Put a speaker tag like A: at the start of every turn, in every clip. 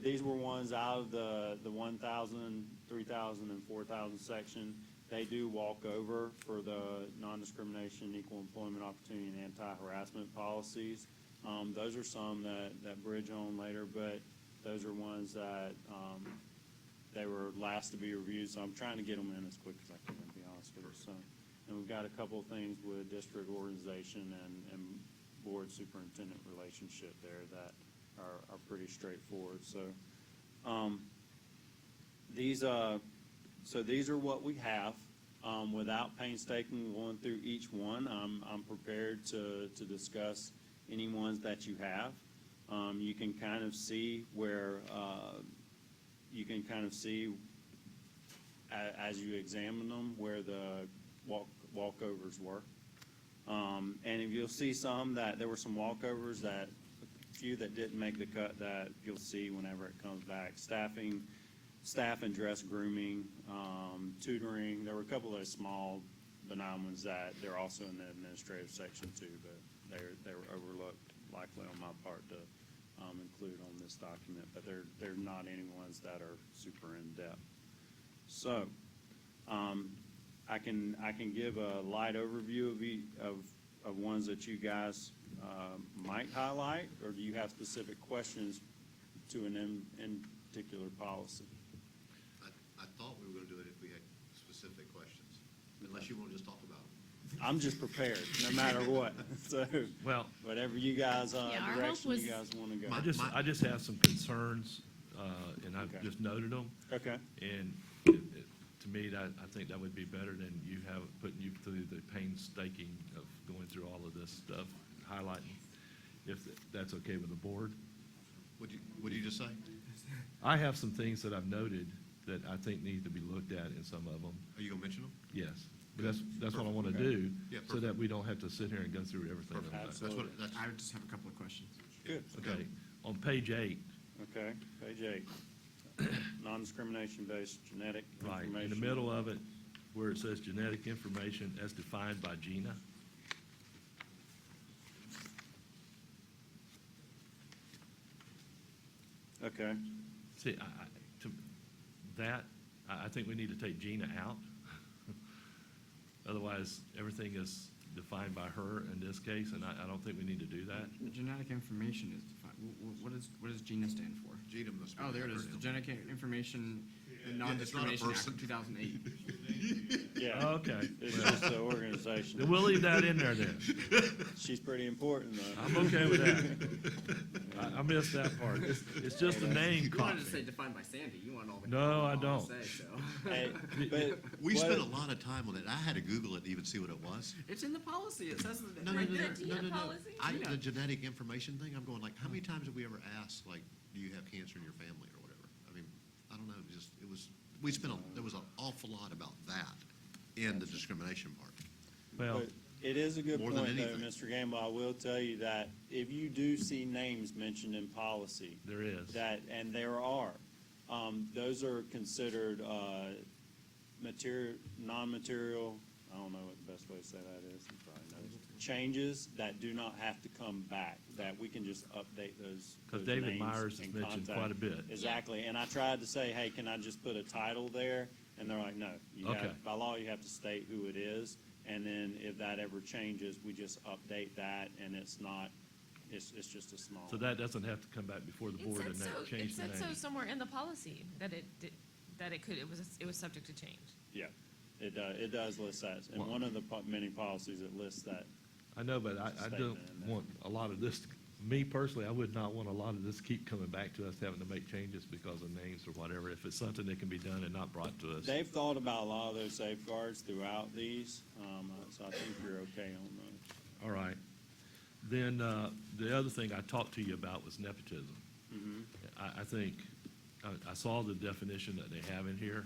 A: these were ones out of the, the one thousand, three thousand, and four thousand section. They do walk over for the non-discrimination, equal employment opportunity, and anti-harassment policies. Um, those are some that, that bridge on later, but those are ones that, um, they were last to be reviewed, so I'm trying to get them in as quick as I can, to be honest with you, so. And we've got a couple of things with district organization and, and board superintendent relationship there that are, are pretty straightforward, so. Um, these, uh, so these are what we have. Um, without painstaking going through each one, I'm, I'm prepared to, to discuss any ones that you have. Um, you can kind of see where, uh, you can kind of see a- as you examine them where the walk, walkovers were. Um, and if you'll see some that, there were some walkovers that, a few that didn't make the cut that you'll see whenever it comes back. Staffing, staff and dress grooming, um, tutoring, there were a couple of small benign ones that they're also in the administrative section too, but they're, they were overlooked likely on my part to, um, include on this document, but they're, they're not any ones that are super in-depth. So, um, I can, I can give a light overview of ea- of, of ones that you guys, uh, might highlight, or do you have specific questions to an in, in particular policy?
B: I, I thought we were gonna do it if we had specific questions, unless you wanna just talk about them.
A: I'm just prepared, no matter what, so,
C: Well,
A: whatever you guys, uh,
D: Yeah, our hope
A: direction
D: was-
A: you guys wanna go.
C: I just, I just have some concerns, uh, and I've
A: Okay.
C: just noted them.
A: Okay,
C: And it- it- to me, that, I think that would be better than you have, putting you through the painstaking of going through all of this stuff, highlighting, if that's okay with the board.
B: What'd you, what'd you just say?
C: I have some things that I've noted that I think need to be looked at in some of them,
B: Are you gonna mention them?
C: yes. But that's, that's what I want to
A: Okay.
C: do,
B: Yeah,
C: so that we don't have to sit here and go through everything.
B: Perfect.
C: on that.
B: That's what,
A: Absolutely.
B: that's,
E: I would just have a couple of questions.
A: good,
C: Okay, on page eight,
A: okay, page eight. Non-discrimination based genetic
C: Right,
A: information.
C: in the middle of it, where it says genetic information as defined by GINA.
A: Okay,
C: See, I, I, to, that, I, I think we need to take GINA out. Otherwise, everything is defined by her in this case, and I, I don't think we need to do that.
E: Genetic information is defined, wh- wh- what is, what does GINA stand for?
B: Gina must be.
E: Oh, there it is, the Genetic Information and Non-Discrimination Act
B: person.
E: of two thousand eight.
A: yeah,
C: Oh, Okay,
A: it's
C: Uh, well,
A: just the
C: then
A: organization.
C: we'll leave that in there then.
A: She's pretty important though.
C: I'm okay with that. I, I missed that part. It's, it's just the name
E: You wanted to say
C: copy.
E: defined by Sandy, you want all the.
C: No, I
E: all to
C: don't.
E: say, so.
A: Hey, but
B: We
A: what-
B: spent a lot of time on it. I had to Google it to even see what it was.
E: It's in the policy, it says it
B: No, no,
E: right
B: no,
E: there.
D: The
B: no, no,
D: Gina
B: no.
D: policy?
B: I,
E: Gina.
B: the genetic information thing, I'm going like, how many times have we ever asked, like, do you have cancer in your family or whatever? I mean, I don't know, it just, it was, we spent, a- there was an awful lot about that in the discrimination part.
C: Well,
A: But It is a good
B: More
A: point,
B: than
A: though,
B: anything.
A: Mr. Gamble. I will tell you that if you do see names mentioned in policy,
C: there is.
A: that, and there are, um, those are considered, uh, material, non-material, I don't know what the best way to say that is, you probably know this, changes that do not have to come back, that we can just update those.
C: 'Cause
A: those
C: David
A: names
C: Myers is
A: and
C: mentioned
A: contact.
C: quite a bit.
A: Exactly, and I tried to say, hey, can I just put a title there? And they're like, no, you
C: Okay.
A: have, by law, you have to state who it is, and then if that ever changes, we just update that, and it's not, it's, it's just a small.
C: So that doesn't have to come back before the
D: It
C: board
D: said
C: and
D: so,
C: that
D: it
C: change the
D: said
C: name.
D: so somewhere in the policy that it, did- that it could, it was, it was subject to change.
A: Yeah, it does, it does list that, and
C: Well-
A: one of the po- many policies, it lists that.
C: I know, but I, I don't
A: Statement in there.
C: want a lot of this, me personally, I would not want a lot of this keep coming back to us having to make changes because of names or whatever, if it's something that can be done and not brought to us.
A: They've thought about a lot of those safeguards throughout these, um, uh, so I think you're okay on those.
C: All right. Then, uh, the other thing I talked to you about was nepotism. I, I think, I, I saw the definition that they have in here,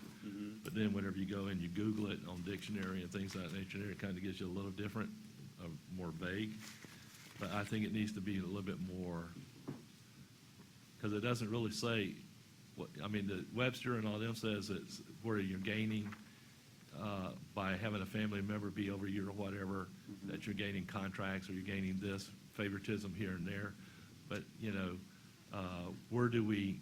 C: but then whenever you go and you Google it on dictionary and things like that, nature, it kind of gives you a little different, uh, more vague. But I think it needs to be a little bit more, because it doesn't really say, what, I mean, the Webster and all them says it's where you're gaining, uh, by having a family member be over you or whatever, that you're gaining contracts or you're gaining this favoritism here and there. But, you know, uh, where do we